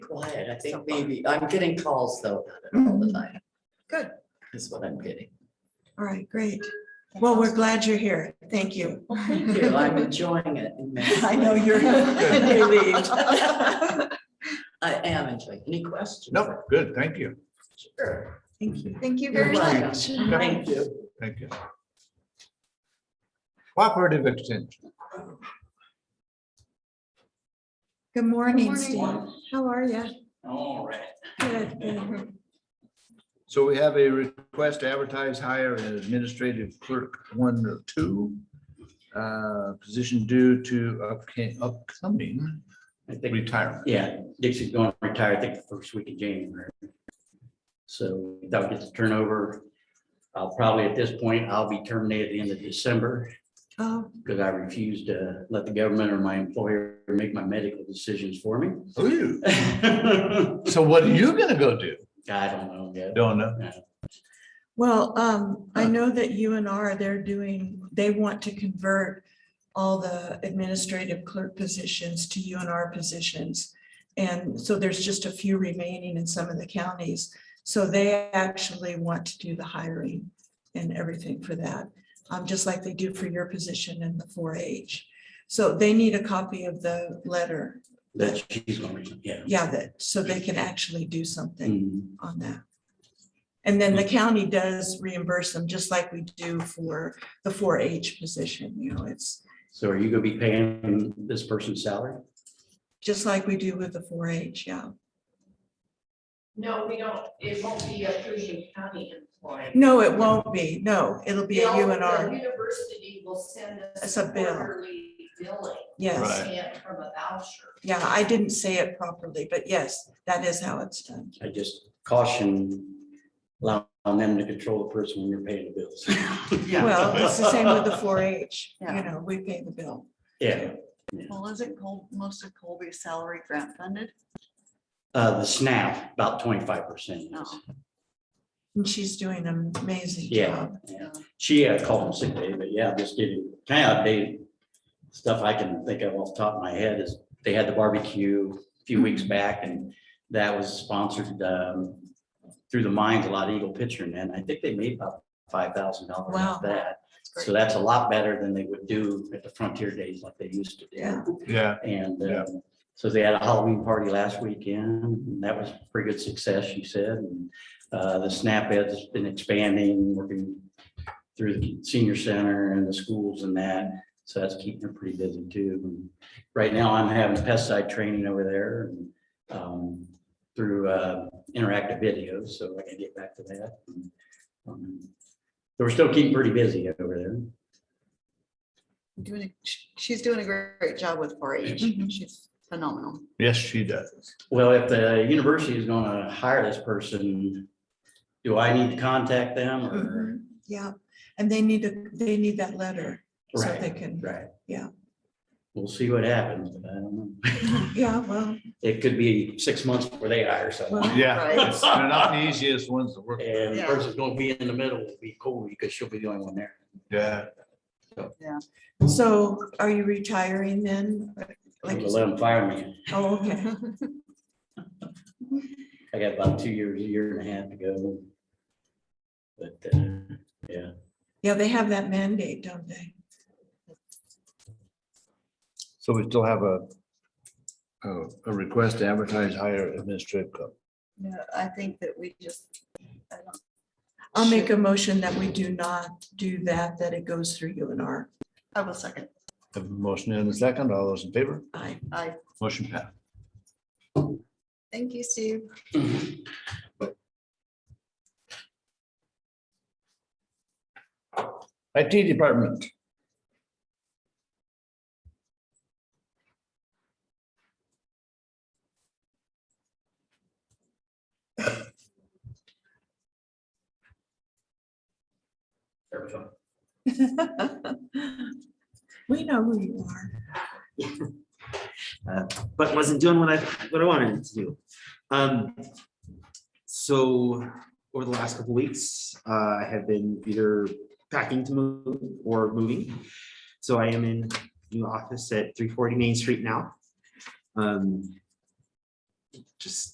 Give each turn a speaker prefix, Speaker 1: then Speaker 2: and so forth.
Speaker 1: quiet. I think maybe, I'm getting calls though about it all the time.
Speaker 2: Good.
Speaker 1: Is what I'm getting.
Speaker 2: All right, great. Well, we're glad you're here. Thank you.
Speaker 1: Thank you. I'm enjoying it. immensely.
Speaker 2: I know you're relieved.
Speaker 1: I am enjoying. Any questions?
Speaker 3: No, good, thank you,
Speaker 1: Sure.
Speaker 2: Thank you.
Speaker 4: Thank you
Speaker 1: You're
Speaker 4: very
Speaker 1: welcome.
Speaker 4: much.
Speaker 1: Thank you.
Speaker 3: thank you. Cooperative Extension,
Speaker 2: Good morning,
Speaker 4: Good
Speaker 2: Steve.
Speaker 4: morning.
Speaker 2: How are you?
Speaker 5: All right.
Speaker 2: Good. good.
Speaker 3: so we have a request to advertise hire an administrative clerk one or two. Uh, position due to upca- upcoming
Speaker 5: I think,
Speaker 3: retirement.
Speaker 5: yeah, Dixie's going to retire, I think, the first week of January. So that'll get the turnover. I'll probably, at this point, I'll be terminated at the end of December
Speaker 2: Oh,
Speaker 5: because I refuse to let the government or my employer make my medical decisions for me.
Speaker 3: Ooh,
Speaker 5: I
Speaker 3: Oh, So what are you gonna go do?
Speaker 5: don't know yet.
Speaker 3: Don't know.
Speaker 2: well, um, I know that UNR, they're doing, they want to convert all the administrative clerk positions to UNR positions. And so there's just a few remaining in some of the counties. So they actually want to do the hiring and everything for that, um, just like they do for your position in the four H. So they need a copy of the letter.
Speaker 5: That she's going to, yeah.
Speaker 2: Yeah, that, so they can Mm-hmm. actually do something.
Speaker 5: Mm,
Speaker 2: on that. And then the county does reimburse them, just like we do for the four H position, you know, it's
Speaker 5: So are you going to be paying this person's salary?
Speaker 2: just like we do with the four H, yeah.
Speaker 6: No, we don't, it won't be a Pershing County employee.
Speaker 2: No, it won't be, no, it'll be a
Speaker 6: They'll- The
Speaker 2: UNR,
Speaker 6: university will send us
Speaker 2: It's a bill.
Speaker 6: quarterly billing,
Speaker 2: yes.
Speaker 3: Right.
Speaker 6: sent from a voucher.
Speaker 2: Yeah, I didn't say it properly, but yes, that is how it's done.
Speaker 5: I just caution, allowing them to control the person when you're paying the bills.
Speaker 2: Well, it's the same with the four H, you
Speaker 4: Yeah.
Speaker 2: know, we pay the bill.
Speaker 5: Yeah,
Speaker 4: Well, isn't Col, most of Colby's salary grant funded?
Speaker 5: uh, the SNAP, about twenty-five percent.
Speaker 2: Oh.
Speaker 4: No.
Speaker 2: And she's doing an amazing
Speaker 5: Yeah,
Speaker 2: job.
Speaker 5: yeah. She uh, called him sick day, but yeah, just getting kind of outdated. Stuff I can think of off the top of my head is they had the barbecue a few weeks back and that was sponsored, um, through the mines, a lot of Eagle Pitcher, and I think they made about five thousand dollars
Speaker 2: Wow.
Speaker 5: off that. So that's a lot better than they would do at the Frontier Days like they used to do.
Speaker 2: Yeah.
Speaker 3: Yeah,
Speaker 5: And
Speaker 3: Yeah.
Speaker 5: um, so they had a Halloween party last weekend, and that was a pretty good success, she said. And uh, The SNAP has been expanding, working through the senior center and the schools and that, so that's keeping her pretty busy too. And Right now, I'm having pesticide training over there and um, through uh, interactive videos, so I can get back to that. Um, So we're still keeping pretty busy over there.
Speaker 4: Doing, a- sh- she's doing a great, great job with four H.
Speaker 2: Mhm.
Speaker 4: She's phenomenal.
Speaker 3: yes, she does.
Speaker 5: Well, if the university is gonna hire this person, do I need to contact them or?
Speaker 2: Mhm, Yeah, and they need to, they need that letter so they
Speaker 5: Right,
Speaker 2: can,
Speaker 5: right.
Speaker 2: Yeah.
Speaker 5: We'll see what happens, but I don't know.
Speaker 2: yeah, well,
Speaker 5: It could be six months before they hire someone.
Speaker 2: Well-
Speaker 3: Yeah,
Speaker 4: Right.
Speaker 3: it's- they're not the easiest ones to work with.
Speaker 5: And the
Speaker 4: Yeah.
Speaker 5: person's gonna be in the middle, it'll be cool because she'll be the only one there.
Speaker 3: Yeah,
Speaker 2: so are you retiring then? Like you
Speaker 5: We'll
Speaker 2: said-
Speaker 5: Let them fire me.
Speaker 2: Oh, okay.
Speaker 5: I got about two years, a year and a half to go. But, uh, yeah.
Speaker 2: Yeah, they have that mandate, don't they?
Speaker 3: so we still have a a a request to advertise hire administrative clerk.
Speaker 4: No, I think that we just. I don't-
Speaker 2: I'll make a motion that we do not do that, that it goes through UNR.
Speaker 4: I will second.
Speaker 3: Have a motion and a second. All those in favor?
Speaker 2: I,
Speaker 4: I,
Speaker 3: Motion passed.
Speaker 4: thank you, Steve.
Speaker 3: IT Department.
Speaker 5: there we go.
Speaker 2: we know who you are.
Speaker 7: but wasn't doing what I, what I wanted it to do. Um, so over the last couple weeks, uh, I have been either packing to move or moving. So I am in new office at three forty Main Street now. Um, just